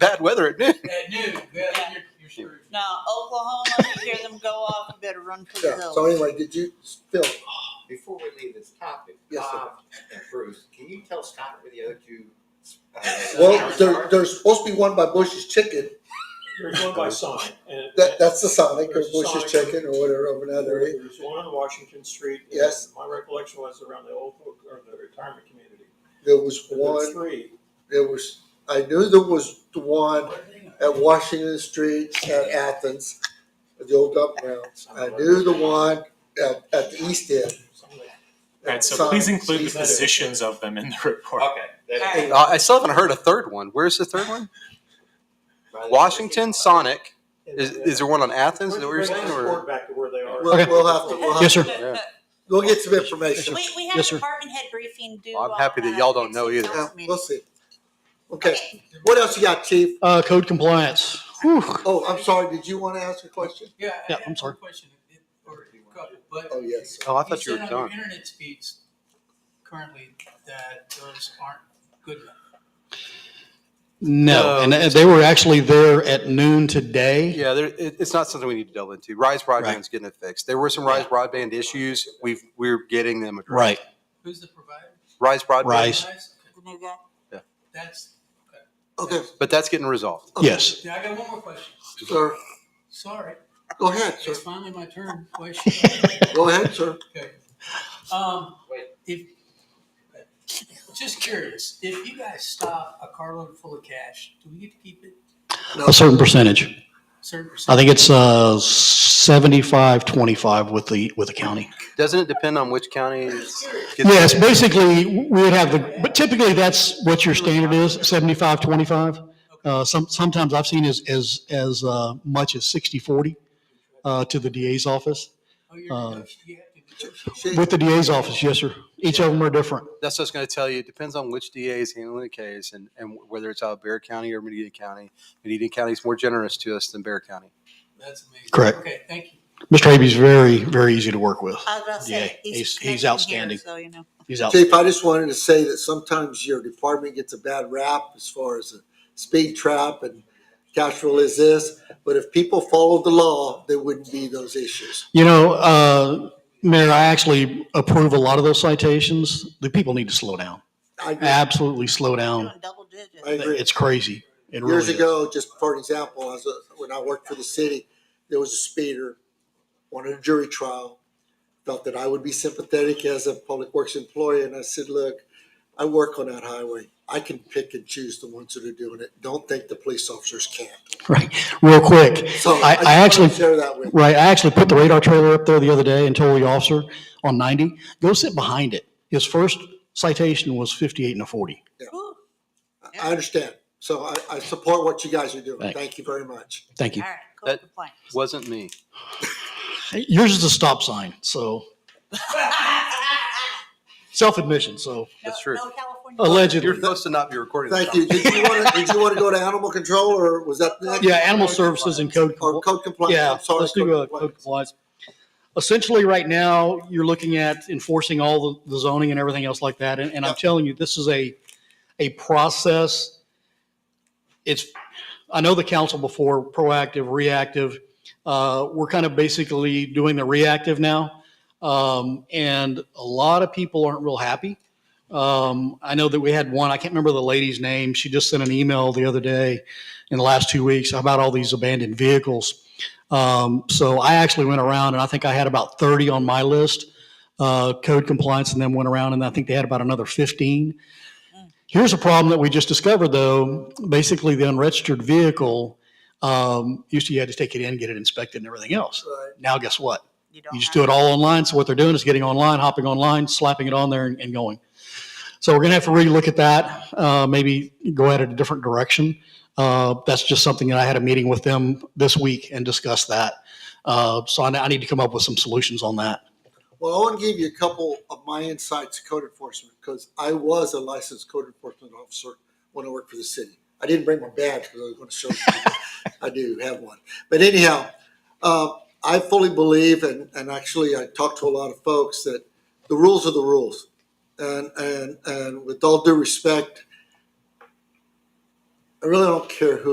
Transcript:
bad weather at noon. At noon, then you're, you're screwed. Now, Oklahoma, you hear them go off, you better run for the Yeah, so hills. anyway, did you, Phil, Before we leave this topic, Yes, sir. Bob and Bruce, can you tell Scott where the other two? uh, well, towers there, are? there's supposed to be one by Bush's Chicken, There's one by Sonic, and. it- that, that's the Sonic, or There's Bush's Sonic. Chicken, or whatever, over in that area. There's one on Washington Street. and Yes. My recollection was around the old, or the retirement community. There was But there are one, three. there was, I knew there was the one at Washington Street at Athens, at the old dump grounds. I knew the one at, at the east end. Some of the- Right, so Sonic. please include the Please. positions of them in the report. Okay. that- Hey. I I still haven't heard a third one. Where's the third one? Washington, Sonic. Is, is there one on Athens? Is that what you're Bring saying? the Or report back to where they are. We'll, we'll have to, we'll Yes, have, sir. Yeah. we'll get some information. We, we had a department head briefing due. Well, I'm on, happy that uh, y'all don't know either. next Yeah, council We'll meeting. see. Okay, what else you got, chief? Uh, code compliance. Whew. Oh, I'm sorry, did you want to ask a question? Yeah. I Yeah, have I'm sorry. one Question, It- or a couple, but. Oh, yes. oh, I thought you were said on done. your internet speeds currently that those aren't good enough. No, Oh. No. and uh, they were actually there at noon today. Yeah, there, it, it's not something we need to delve into. Rise broadband's getting it fixed. There were some Rise broadband issues. We've we're getting them addressed. Right. Who's the provider? Rise broadband. Rise. Nice, okay. The new guy. That's, Okay, But that's getting resolved. Yes. yeah, I got one more question. sir, Sorry, go ahead, sir, it's finally my turn. Question. go ahead, sir. Okay. Um, Wait. if, just curious, if you guys stop a carload full of cash, do we get to keep it? A certain percentage. Certain I think it's, uh, seventy-five, twenty-five with the, with the county. Doesn't it depend on which county? it's- gets- Yes, basically, we would have the, but typically that's what your standard is, seventy-five, twenty-five. Uh, some, sometimes I've seen as, as, as, uh, much as sixty, forty, uh, to the DA's office. Oh, you're Uh, negoti- you have to negotiate. She- With the DA's office, yes, sir. Each of them are different. That's what I was going to tell you. It depends on which DA is handling the case and, and whether it's out of Bear County or Medina County. Medina County is more generous to us than Bear County. That's amazing. Correct. Okay, thank you. Mr. Habey's very, very easy to work with. I was about to Yeah, say, he's- he's. he's connected here, outstanding. So, you know. He's out. Chief, I just wanted to say that sometimes your department gets a bad rap as far as a speed trap and cash rule is this, but if people followed the law, there wouldn't be those issues. You know, uh, Mayor, I actually approve a lot of those citations. The people need to slow down. I agree. Absolutely slow down. Doing double digits. I agree. It's crazy. It really Years is. ago, just for an example, I was, a- when I worked for the city, there was a speeder, wanted a jury trial, felt that I would be sympathetic as a public works employee, and I said, look, I work on that highway. I can pick and choose the ones that are doing it. Don't think the police officers can't. Right. Real quick. So I- I just wanted to actually- Share that with. you. Right. I actually put the radar trailer up there the other day and told the officer on 90, go sit behind it. His first citation was 58 and a 40. Whew. I understand. So I, I support what you guys are doing. Thanks. Thank you very much. Thank All you. right, cool That- complaint. Wasn't me. Yours is a stop sign. So self admission. So No- That's true. No California. You're allegedly. supposed to not be recording. this Thank you. Did you want to, did you want to go to animal control or was that? next? Yeah. Animal services and code. Or code compliance? Yeah, I'm sorry. let's do uh, compliance. code compliance. Essentially, right now, you're looking at enforcing all the- the zoning and everything else like that, and, and I'm telling you, this is a, a process. It's, I know the council before, proactive, reactive, uh, we're kind of basically doing the reactive now. Um, and a lot of people aren't real happy. Um, I know that we had one, I can't remember the lady's name, she just sent an email the other day in the last two weeks about all these abandoned vehicles. Um, so I actually went around and I think I had about 30 on my list, uh, code compliance, and then went around and I think they had about another 15. Here's a problem that we just discovered though. Basically, the unregistered vehicle, um, used to you had to take it in, get it inspected and everything else. Right. Now, guess what? don't You just have- do it all online. So what they're doing is getting online, hopping online, slapping it on there and, and going. So we're going to have to relook at that, uh, maybe go at it a different direction. Uh, that's just something that I had a meeting with them this week and discussed that. Uh, so I, I need to come up with some solutions on that. Well, I want to give you a couple of my insights to code enforcement because I was a licensed code enforcement officer when I worked for the city. I didn't bring my badge because I was going to show you. I do have one. But anyhow, uh, I fully believe, and, and actually I talked to a lot of folks, that the rules are the rules. And, and, and with all due respect, I really don't care who